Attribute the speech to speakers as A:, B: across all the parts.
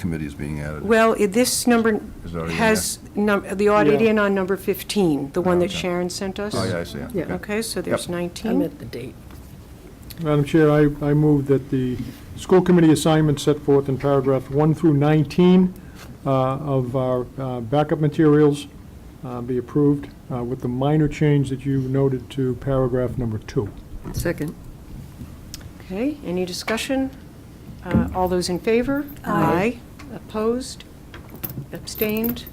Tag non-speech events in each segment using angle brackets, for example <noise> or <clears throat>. A: committee is being added.
B: Well, i- this number
A: Is it already in
B: has, num- the audit
C: Yeah.
B: in on number 15, the one
A: Oh,
B: that
A: okay.
B: Sharon sent us.
A: Oh, yeah, I see. it.
C: Yeah.
A: Okay.
B: Okay, so there's
A: Yep.
B: 19.
D: I'm at the date.
C: Madam Chair, I, I move that the school committee assignments set forth in paragraph 1 through 19 uh, of our uh, backup materials uh, be approved uh, with the minor change that you noted to paragraph number 2.
D: Second.
B: Okay, any discussion? Uh, All those in favor?
D: Aye.
B: Opposed? Abstained?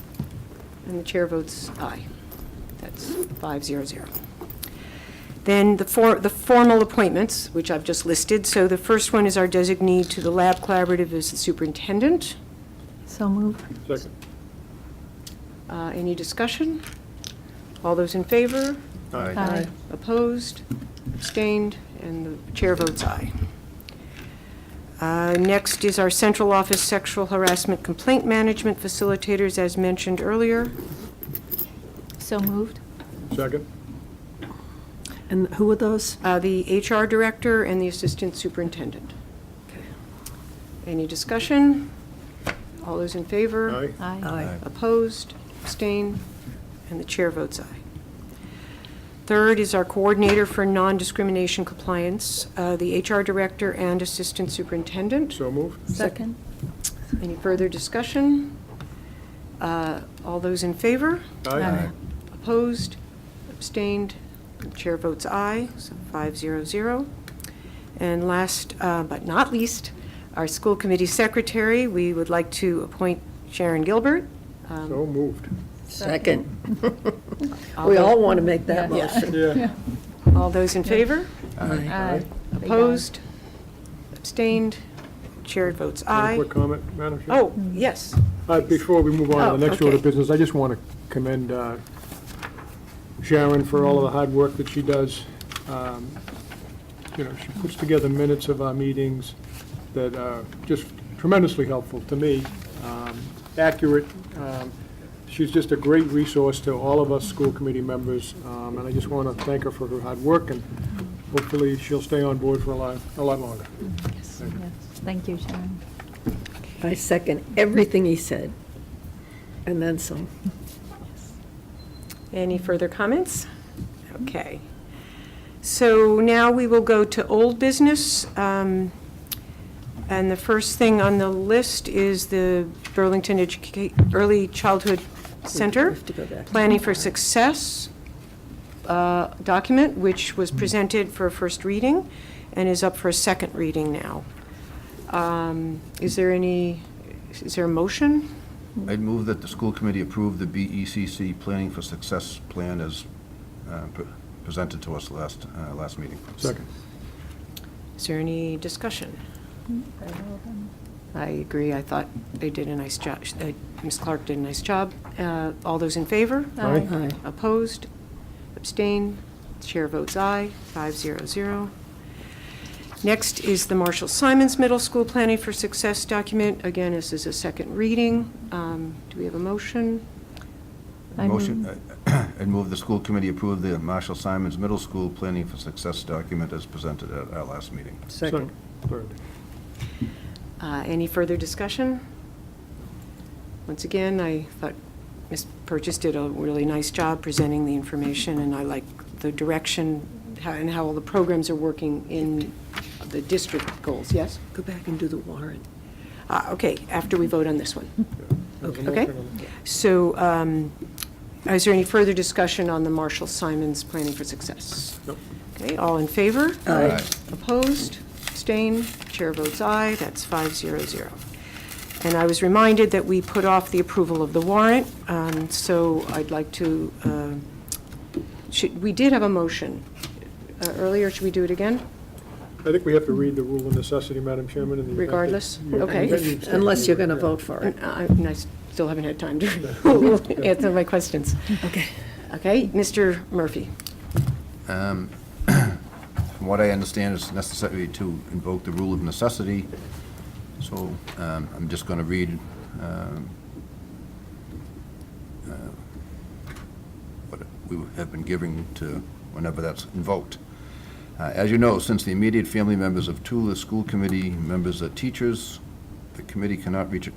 B: And the chair votes aye. That's five zero zero. Then the for, the formal appointments, which I've just listed. So the first one is our designee to the lab collaborative is the superintendent.
D: So move.
C: Second.
B: Uh, Any discussion? All those in favor?
A: All right.
D: Aye.
B: Opposed, abstained, and the chair votes aye. Uh, Next is our central office sexual harassment complaint management facilitators, as mentioned earlier.
D: So moved.
C: Second.
D: And who are those?
B: Uh, The HR director and the assistant superintendent. Any discussion? All those in favor?
D: Aye.
B: Opposed, abstained, and the chair votes aye. Third is our coordinator for non-discrimination compliance, uh, the HR director and assistant superintendent.
C: So moved.
D: Second.
B: Any further discussion? Uh, All those in favor?
A: Aye.
B: Opposed, abstained, the chair votes aye, so five zero zero. And last uh, but not least, our school committee secretary, we would like to appoint Sharon Gilbert. Um,
C: So moved.
E: Second.
B: I'll
E: We
B: vote-
E: all want to make that motion.
C: Yeah.
B: All those in favor?
A: Aye.
D: Aye.
B: Opposed? Abstained? Chair votes
C: One
B: aye.
C: Quick comment, Madam Chair.
B: Oh, yes.
C: Uh, Before we move on to the
B: Oh,
C: next order of
B: okay.
C: business, I just want to commend uh, Sharon for all of the hard work that she does. Um, You know, she puts together minutes of our meetings that are just tremendously helpful to me, um, accurate. Um, She's just a great resource to all of us school committee members, um, and I just want to thank her for her hard work, and hopefully she'll stay on board for a lot, a lot longer.
F: Thank you, Sharon.
E: I second everything he said, and then some.
B: Any further comments? Okay. So now we will go to old business. um, And the first thing on the list is the Burlington Educa- Early Childhood
E: We
B: Center.
E: have to go back.
B: Planning for Success uh, document, which was presented for a first reading and is up for a second reading now. Um, Is there any, is there a motion?
A: I'd move that the school committee approve the BECC Planning for Success Plan as uh, pre- presented to us last, uh, last meeting.
C: Second.
B: Is there any discussion? I agree, I thought they did a nice job, uh, Ms. Clark did a nice job. Uh, All those in favor?
C: Aye.
E: Aye.
B: Opposed? Abstained? Chair votes aye, five zero zero. Next is the Marshall Simons Middle School Planning for Success document. Again, this is a second reading. Um, Do we have a motion?
F: I
A: Motion, I- <clears throat> I'd move the school committee approve the Marshall Simons Middle School Planning for Success document as presented at our last meeting.
E: Second.
C: Third.
B: Uh, Any further discussion? Once again, I thought Ms. Purchase did a really nice job presenting the information, and I like the direction how- and how all the programs are working in the district goals, yes?
E: Go back and do the warrant.
B: Ah, Okay, after we vote on this one.
C: There's a
B: Okay.
C: motion on the-
B: So um, is there any further discussion on the Marshall Simons Planning for Success?
C: Nope.
B: Okay, all in favor?
A: Aye.
B: Opposed? Abstained? Chair votes aye. That's five zero zero. And I was reminded that we put off the approval of the warrant, um, so I'd like to, um, should, we did have a motion uh, earlier. Should we do it again?
C: I think we have to read the rule of necessity, Madam Chairman, and the. effect that-
B: Regardless?
C: Yeah,
B: Okay.
C: that needs
E: If-
C: to-
E: Unless you're going to vote for
B: And
E: it.
B: uh, I and I still haven't had time to <laughs> answer my questions.
E: Okay.
B: Okay, Mr. Murphy?
A: Um, <clears throat> From what I understand, it's necessary to invoke the rule of necessity, so um, I'm just going to read um, uh, what we have been giving to whenever that's invoked. Uh, As you know, since the immediate family members of two of the school committee members are teachers, the committee cannot reach a